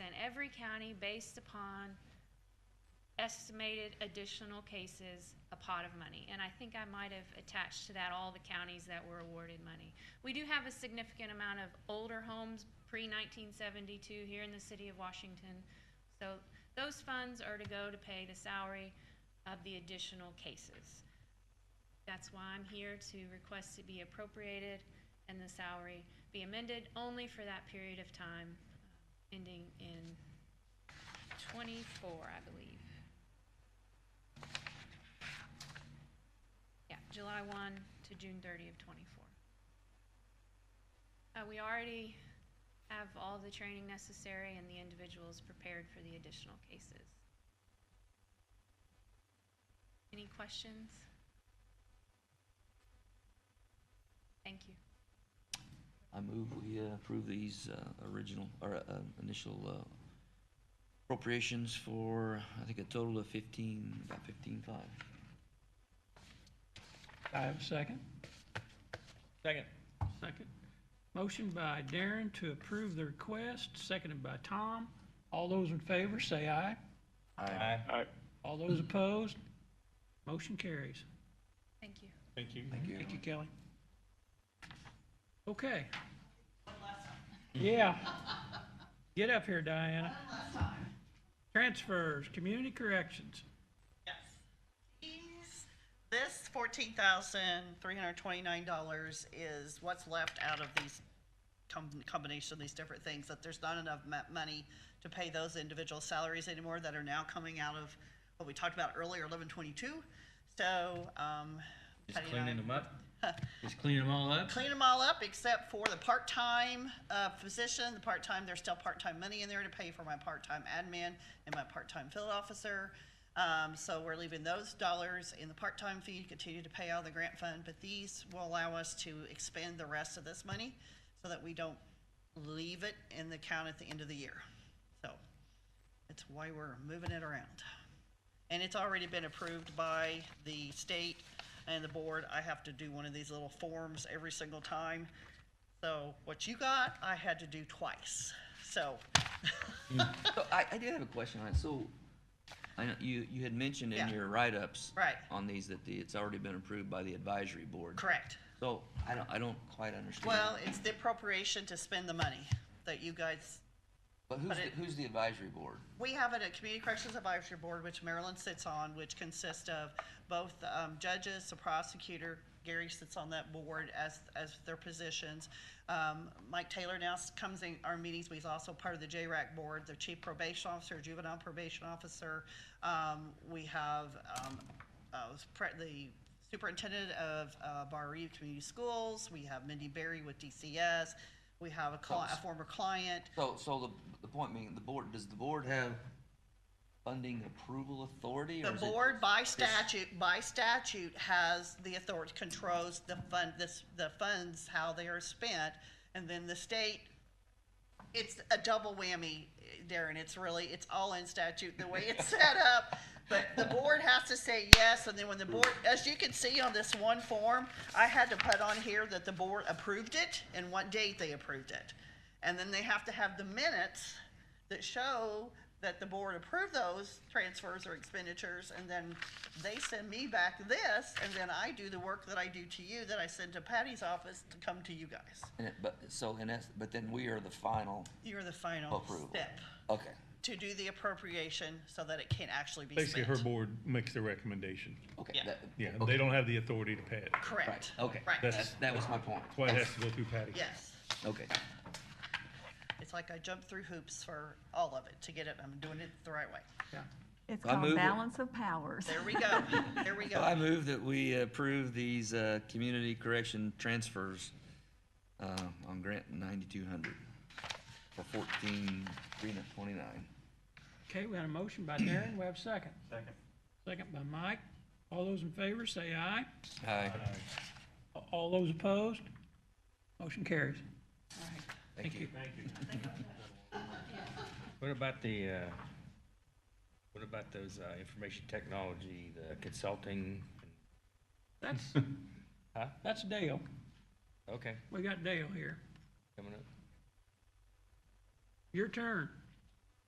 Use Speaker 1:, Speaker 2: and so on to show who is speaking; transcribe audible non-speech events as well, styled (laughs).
Speaker 1: in every county based upon estimated additional cases, a pot of money. And I think I might have attached to that all the counties that were awarded money. We do have a significant amount of older homes pre-1972 here in the city of Washington. So those funds are to go to pay the salary of the additional cases. That's why I'm here to request to be appropriated and the salary be amended only for that period of time, uh, ending in 24, I believe. Yeah, July 1 to June 30 of 24. Uh, We already have all the training necessary and the individuals prepared for the additional cases. Any questions? Thank you.
Speaker 2: I move we uh, approve these uh, original, or uh, initial uh, appropriations for, I think, a total of 15, about 15.5.
Speaker 3: I have a second.
Speaker 4: Second.
Speaker 3: Second. Motion by Darren to approve the request, seconded by Tom. All those in favor, say aye.
Speaker 4: Aye.
Speaker 3: All (laughs) those opposed, motion carries.
Speaker 1: Thank you.
Speaker 4: Thank you.
Speaker 3: Thank you, Kelly. Okay. Yeah. Get up here, Diana. Transfers, community corrections.
Speaker 5: Yes. Please. This fourteen thousand three hundred twenty-nine dollars is what's left out of these com- combination of these different things, that there's not enough ma- money to pay those individual salaries anymore that are now coming out of what we talked about earlier, eleven twenty-two. So, um. Patty and I-
Speaker 4: up? Just cleaning them all up?
Speaker 5: clean them all up except for the part-time uh, physician, the part-time, there's still part-time money in there to pay for my part-time admin and my part-time field officer. Um, so we're leaving those dollars in the part-time fee, continue to pay out of the grant fund, but these will allow us to expend the rest of this money so that we don't leave it in the account at the end of the year. So that's why we're moving it around. And it's already been approved by the state and the board. I have to do one of these little forms every single time. So what you got, I had to do twice. So,
Speaker 2: So I, I did have a question on it. So I know you, you had mentioned in
Speaker 5: Yeah.
Speaker 2: your write-ups
Speaker 5: Right.
Speaker 2: on these that the, it's already been approved by the advisory board.
Speaker 5: correct.
Speaker 2: So I don't, I don't quite understand.
Speaker 5: Well, it's the appropriation to spend the money that you guys,
Speaker 2: But who's,
Speaker 5: but
Speaker 2: the-
Speaker 5: it-
Speaker 2: who's the advisory board?
Speaker 5: we have it at Community Corrections Advisory Board, which Maryland sits on, which consists of both um, judges, the prosecutor, Gary sits on that board as, as their positions. Um, Mike Taylor now s- comes in our meetings, but he's also part of the JRAC board, the chief probation officer, juvenile probation officer. Um, We have um, uh, pre- the superintendent of uh, Barre Community Schools. We have Mindy Berry with DCS. We have a cli- a former client.
Speaker 2: So, so the, the point being, the board, does the board have funding approval authority? or
Speaker 5: The
Speaker 2: is it-
Speaker 5: board by statute, by statute has the authority, controls the fund, this, the funds, how they are spent. And then the state, it's a double whammy, Darren. It's really, it's all in statute, the way
Speaker 2: (laughs)
Speaker 5: it's set up. But the board has to say yes, and then when the board, as you can see on this one form, I had to put on here that the board approved it and what date they approved it. And then they have to have the minutes that show that the board approved those transfers or expenditures, and then they send me back this, and then I do the work that I do to you, that I send to Patty's office to come to you guys.
Speaker 2: And it, but, so, and that's, but then we are the final
Speaker 5: You're the final
Speaker 2: approval.
Speaker 5: step
Speaker 2: Okay,
Speaker 5: to do the appropriation so that it can actually be
Speaker 6: Basically,
Speaker 5: spent.
Speaker 6: her board makes the recommendation.
Speaker 2: okay.
Speaker 5: Yeah.
Speaker 2: that-
Speaker 6: Yeah,
Speaker 2: okay,
Speaker 6: they don't have the authority to pay it. That's
Speaker 5: Correct.
Speaker 2: Right, okay.
Speaker 5: Right.
Speaker 6: That's-
Speaker 2: That, that was my point.
Speaker 6: why it has to go through Patty.
Speaker 5: Yes.
Speaker 2: Okay.
Speaker 5: It's like I jumped through hoops for all of it to get it. I'm doing it the right way.
Speaker 7: It's
Speaker 2: I move
Speaker 7: called
Speaker 2: it.
Speaker 7: balance of powers.
Speaker 5: There
Speaker 2: (laughs)
Speaker 5: we go. There we
Speaker 2: So I
Speaker 5: go.
Speaker 2: move that we approve these, uh, community correction transfers, uh, on grant ninety-two hundred for fourteen, three twenty-nine.
Speaker 3: Okay, we had a motion by Darren, we have a second. Second. Second by Mike. All those in favor, say aye.
Speaker 2: Aye,
Speaker 3: A- All those opposed, motion carries.
Speaker 2: thank you.
Speaker 4: What about the, uh, what about those, uh, information technology, the consulting?
Speaker 3: That's,
Speaker 2: (laughs)
Speaker 4: Huh?
Speaker 3: that's Dale.
Speaker 4: Okay,
Speaker 3: We got Dale here.
Speaker 4: coming up.
Speaker 3: Your turn.